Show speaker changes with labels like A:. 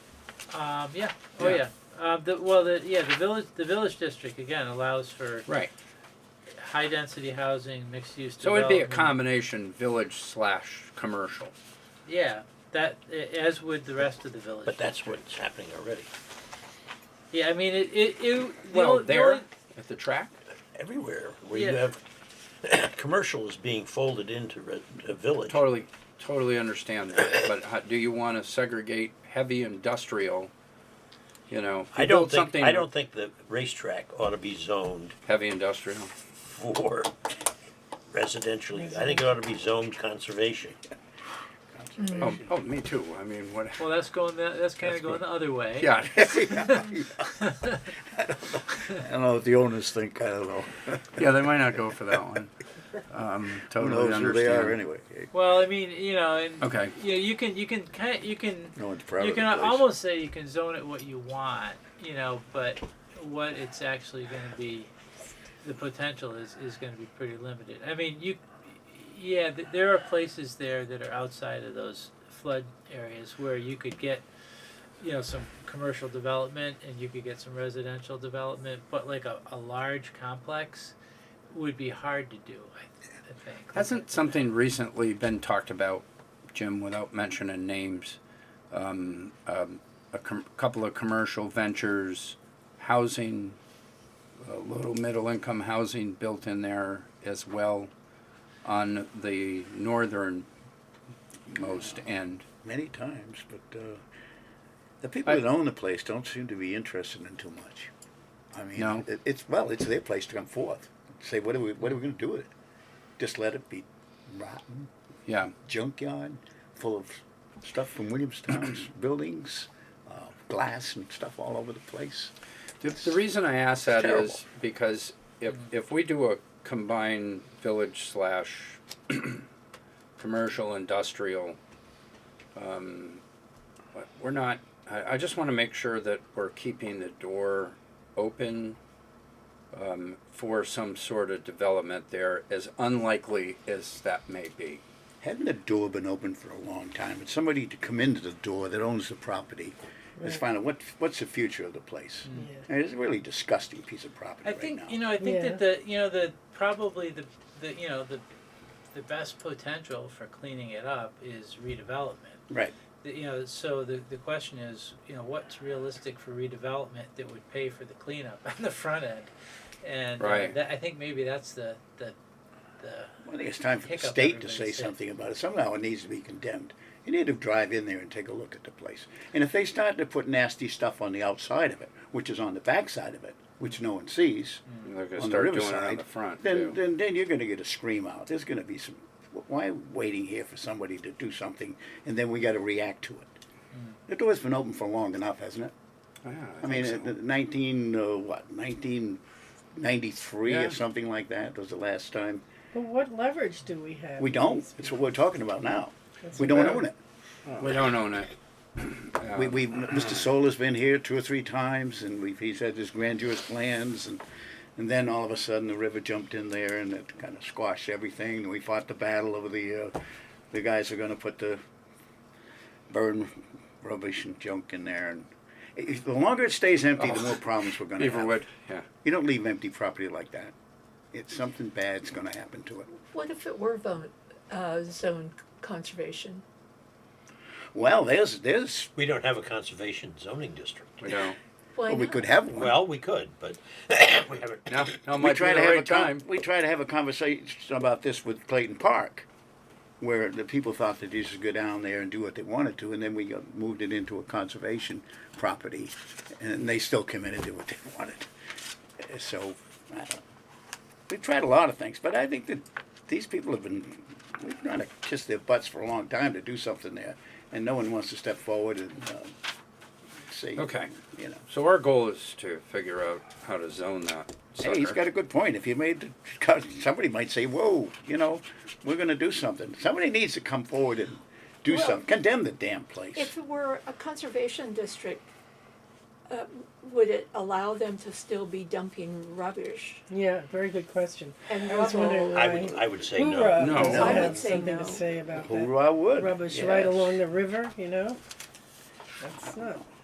A: Um, yeah. Oh yeah.
B: Yeah.
A: Uh, the, well, the yeah, the village the village district again allows for
B: Right.
A: high density housing, mixed use.
B: So it'd be a
A: common.
B: combination village slash commercial.
A: Yeah, that a- as would the rest of the village.
C: But that's what's happening already,
A: yeah. I mean, it it, it the
B: Well,
A: only- the
B: there
A: only-
B: at the track.
C: everywhere, where you
A: Yeah.
C: have, commercial is being folded into re- a village.
B: Totally, totally understand that. But how, do you want to segregate heavy industrial? You know, if
C: I
B: you
C: don't
B: build
C: think,
B: something
C: I don't think the racetrack ought to be zoned
B: heavy industrial. Oh,
C: for residential, use. I think it ought to be zoned conservation.
B: Oh, oh, me too. I mean, what?
A: well, that's going the, that's kind of
D: That's
A: going
D: good.
A: the other way.
B: Yeah.
D: I don't know what the owners think. I don't know.
B: Yeah, they might not go for that one. Um,
D: Who
B: totally
D: knows who
B: understand.
D: they are anyway?
A: Well, I mean, you know, and
B: Okay.
A: you know, you can you can kind of, you can
D: No one's proud
A: you
D: of the
A: can
D: place.
A: almost say you can zone it what you want, you know, but what it's actually going to be, the potential is is going to be pretty limited. I mean, you, yeah, th- there are places there that are outside of those flood areas where you could get, you know, some commercial development and you could get some residential development, but like a, a large complex would be hard to do. I, th- I think
B: Hasn't something recently been talked about, Jim, without mentioning names? Um, um, a com- couple of commercial ventures, housing, uh, little middle income housing built in there as well on the northernmost end.
D: many times, but uh, the people
B: I-
D: that own the place don't seem to be interested in too much. I mean,
B: No.
D: it, it's well, it's their place to come forth. Say, what are we, what are we going to do with it? Just let it be rotten
B: Yeah.
D: junkyard full of stuff from Williamstown's buildings, uh, glass and stuff all over the place.
B: The, the reason I ask that
D: Terrible.
B: is because if, if we do a combined village slash commercial industrial, um, but we're not, I, I just want to make sure that we're keeping the door open um, for some sort of development there, as unlikely as that may be.
D: Hadn't the door been open for a long time? And somebody to come into the door that owns the property is find out what what's the future of the place. And it's a really disgusting piece of property
A: Mm. I
D: right
A: think
D: now.
A: you know. I think
E: Yeah.
A: that the you know the probably the the you know the the best potential for cleaning it up is redevelopment.
D: right.
A: The- you know, so the the question is, you know, what's realistic for redevelopment that would pay for the cleanup on the front end, and uh,
B: Right.
A: that, I think maybe that's the the the
D: I think it's time for the
A: Pick up
D: state to
A: everybody's
D: say
A: head.
D: something about it. Somehow it needs to be condemned. You need to drive in there and take a look at the place. And if they start to put nasty stuff on the outside of it, which is on the backside of it, which no one sees,
A: Mm.
B: They're going to
D: on
B: start
D: the
B: doing it
D: riverside,
B: on the front,
D: then,
B: too.
D: then then you're going to get a scream out. There's going to be some. Why are we waiting here for somebody to do something, and then we got to react to it? The door's been open for long enough, hasn't it?
B: Yeah,
D: I, mean,
B: think so.
D: uh, 19 uh, what 1993
B: Yeah.
D: or something like that was the last time.
E: But what leverage do we have?
D: We don't. It's what we're talking about now.
E: That's
D: we don't
B: bad.
D: own it.
B: we don't own it.
D: We,
B: Um,
D: we Mr. Solar's been here two or three times, and we've, he's had his grandiose plans, and and then all of a sudden the river jumped in there, and it kind of squashed everything. And we fought the battle over the uh, the guys are going to put the burn rubbish and junk in there, and if, the longer it stays empty, the
B: Oh.
D: more problems we're going to have.
B: Beaverwood, yeah.
D: You don't leave empty property like that. It's something bad's going to happen to it.
F: What if it were zone, uh, zone conservation?
D: Well, there's there's
C: We don't have a conservation zoning district.
B: We don't.
F: Why
D: well, Oh, we
F: not?
D: could have one.
C: Well, we could, but we haven't.
B: No, no,
D: we
B: might
D: try
B: be the
D: to have a
B: right
D: time.
B: time.
D: we try to have a conversation about this with Clayton Park, where the people thought that they should go down there and do what they wanted to, and then we got, moved it into a conservation property, and they still came in and did what they wanted. Uh, So I don't know. we tried a lot of things, but I think that these people have been we've trying to kiss their butts for a long time to do something there, and no one wants to step forward and uh, say,
B: Okay.
D: you know.
B: So our goal is to figure out how to zone that. Sucker.
D: Hey, he's got a good point. If you made, somebody might say, "Whoa, you know, we're going to do something." Somebody needs to come forward and do
F: Well-
D: something. Condemn the damn place.
F: If it were a conservation district, uh, would it allow them to still be dumping rubbish?
E: Yeah, very good question.
F: And
E: I was wondering
F: rubble?
C: I
E: why.
C: would, I would say
E: Hoorah
C: no.
B: No.
E: has
B: No.
D: I
F: would
E: had
F: say
E: something
F: no.
E: to say about
D: Who
E: that
D: I would
E: rubbish right
D: Yes.
E: along the river. You know, that's not